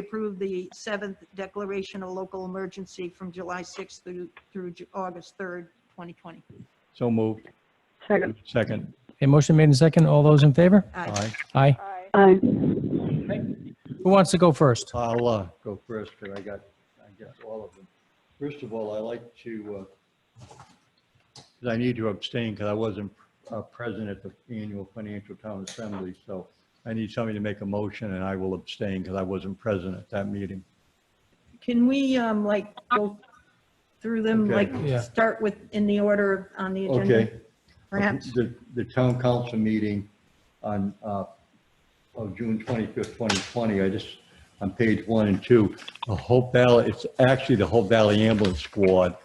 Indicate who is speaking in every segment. Speaker 1: approve the seventh declaration of local emergency from July 6th through, through Ju- August 3rd, 2020.
Speaker 2: So moved.
Speaker 3: Second.
Speaker 2: Second.
Speaker 4: A motion made in second. All those in favor?
Speaker 1: Aye.
Speaker 2: Aye.
Speaker 4: Aye.
Speaker 3: Aye. Aye.
Speaker 4: Who wants to go first?
Speaker 2: I'll uh, go first because I got, I guess, all of them. First of all, I like to, uh, 'cause I need to abstain because I wasn't uh, present at the annual financial town assembly. So I need somebody to make a motion and I will abstain because I wasn't present at that meeting.
Speaker 1: Can we, um, like, go through them, like,
Speaker 2: Okay.
Speaker 4: Yeah.
Speaker 1: start with, in the order on the agenda,
Speaker 2: Okay.
Speaker 1: perhaps?
Speaker 2: The, the town council meeting on, uh, of June 25th, 2020, I just, on page one and two, the Hope Valley, it's actually the Hope Valley Ambulance Squad,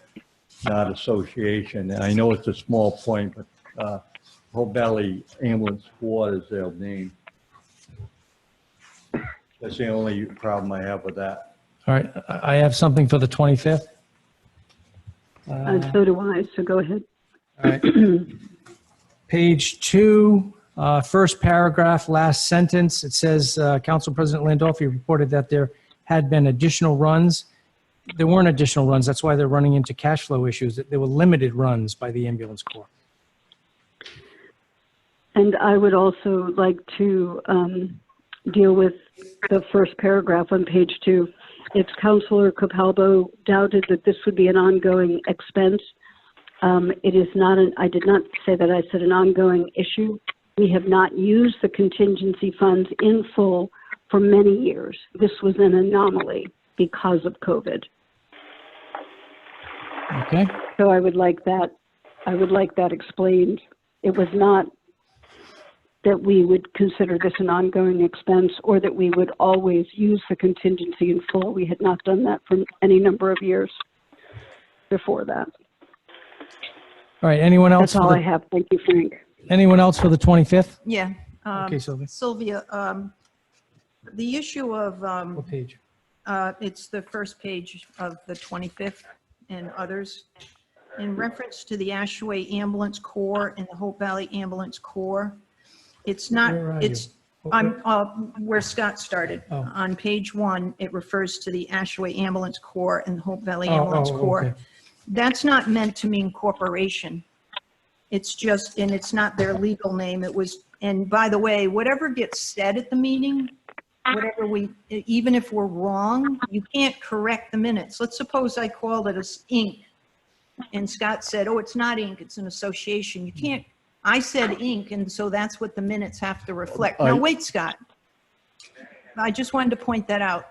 Speaker 2: not association. And I know it's a small point, but uh, Hope Valley Ambulance Squad is their name. That's the only problem I have with that.
Speaker 4: All right, I I have something for the 25th.
Speaker 3: And so do I, so go ahead.
Speaker 4: All right. Page two, uh, first paragraph, last sentence, it says, uh, Council President Landolfi reported that there had been additional runs. There weren't additional runs, that's why they're running into cash flow issues. There were limited runs by the ambulance corps.
Speaker 3: And I would also like to um, deal with the first paragraph on page two. If Counselor Capalbo doubted that this would be an ongoing expense, um, it is not an, I did not say that, I said an ongoing issue. We have not used the contingency funds in full for many years. This was an anomaly because of COVID.
Speaker 4: Okay,
Speaker 3: So I would like that, I would like that explained. It was not that we would consider this an ongoing expense or that we would always use the contingency in full. We had not done that for any number of years before that.
Speaker 4: all right, anyone else?
Speaker 3: That's
Speaker 4: for
Speaker 3: all
Speaker 4: the-
Speaker 3: I have. Thank you, Frank.
Speaker 4: Anyone else for the 25th?
Speaker 1: Yeah. um,
Speaker 4: Okay, Sylvia.
Speaker 1: Sylvia, um, the issue of, um,
Speaker 4: What page?
Speaker 1: Uh, It's the first page of the 25th and others. In reference to the Ashway Ambulance Corps and the Hope Valley Ambulance Corps, it's
Speaker 4: Where are
Speaker 1: not,
Speaker 4: you?
Speaker 1: it's, I'm, uh, where Scott started.
Speaker 4: Oh.
Speaker 1: On page one, it refers to the Ashway Ambulance Corps and the Hope Valley
Speaker 4: Oh,
Speaker 1: Ambulance
Speaker 4: oh, okay.
Speaker 1: Corps. That's not meant to mean corporation. It's just, and it's not their legal name. It was, and by the way, whatever gets said at the meeting, whatever we, even if we're wrong, you can't correct the minutes. Let's suppose I called it as Inc. And Scott said, oh, it's not Inc., it's an association. You can't, I said Inc., and so that's what the minutes have to reflect. Now,
Speaker 2: I-
Speaker 1: wait, Scott. I just wanted to point that out.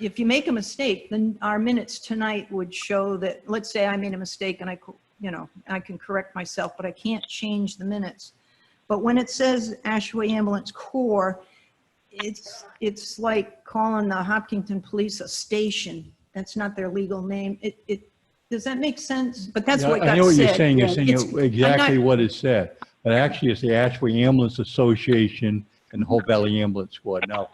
Speaker 1: If you make a mistake, then our minutes tonight would show that, let's say I made a mistake and I, co- you know, I can correct myself, but I can't change the minutes. But when it says Ashway Ambulance Corps, it's, it's like calling the Hopkinton Police a station. That's not their legal name. It, it, does that make sense? But that's what got said.
Speaker 2: I know what you're saying, you're saying
Speaker 1: It's-
Speaker 2: it- exactly
Speaker 1: I'm not-
Speaker 2: what it said, but actually it's the Ashway Ambulance Association and Hope Valley Ambulance Squad. Now,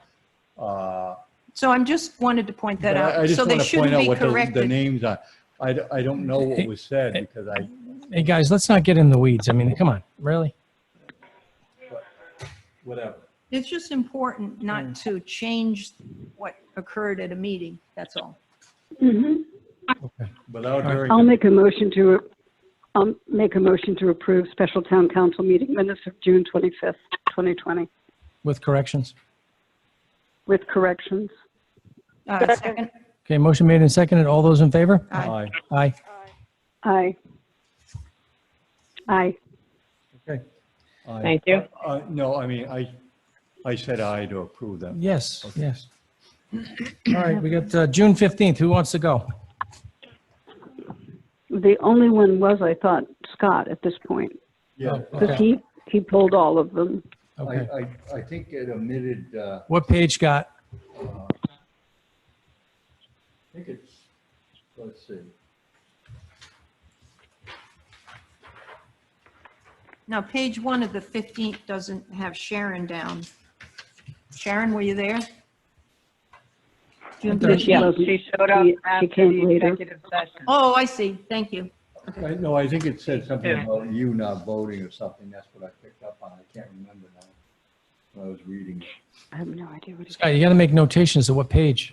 Speaker 2: uh,
Speaker 1: So I'm just wanted to point that
Speaker 2: but I I
Speaker 1: out.
Speaker 2: just
Speaker 1: So they
Speaker 2: want to point
Speaker 1: shouldn't
Speaker 2: out
Speaker 1: be
Speaker 2: what the- the
Speaker 1: corrected.
Speaker 2: names are. I, d- I don't know what was said because I,
Speaker 4: Hey, guys, let's not get in the weeds. I mean, come on, really?
Speaker 2: whatever.
Speaker 1: It's just important not
Speaker 2: Mm.
Speaker 1: to change what occurred at a meeting, that's all.
Speaker 3: Mhm.
Speaker 2: Without hearing,
Speaker 3: I'll
Speaker 2: the-
Speaker 3: make a motion to, I'll make a motion to approve special town council meeting minutes of June 25th, 2020
Speaker 4: With corrections?
Speaker 3: with corrections.
Speaker 1: Uh, Second,
Speaker 4: Okay, motion made and seconded. All those in favor?
Speaker 1: Aye.
Speaker 2: Aye.
Speaker 4: Aye.
Speaker 3: Aye. Aye.
Speaker 4: Okay.
Speaker 2: Aye.
Speaker 5: Thank you.
Speaker 2: Uh, No, I mean, I, I said aye to approve them.
Speaker 4: Yes, yes. All right, we got uh, June 15th. Who wants to go?
Speaker 3: The only one was, I thought, Scott at this point,
Speaker 2: Yeah,
Speaker 4: Oh,
Speaker 3: because
Speaker 4: Okay.
Speaker 3: he, he pulled all of them.
Speaker 2: I,
Speaker 4: Okay.
Speaker 2: I, I think it omitted, uh,
Speaker 4: What page got?
Speaker 2: I think it's, let's see.
Speaker 1: now, page one of the 15th doesn't have Sharon down. Sharon, were you there? June
Speaker 4: Okay.
Speaker 3: She
Speaker 1: 15th.
Speaker 5: Yeah,
Speaker 3: wasn't-
Speaker 5: she showed up
Speaker 3: she- she
Speaker 5: after
Speaker 3: came
Speaker 5: the
Speaker 3: later.
Speaker 5: executive session.
Speaker 1: Oh, I see, thank you.
Speaker 2: I- No, I think it said something about you not voting or something. That's what I picked up on. I can't remember now. when I was reading.
Speaker 3: I have no idea what he's.
Speaker 4: Scott, you got to make notations of what page.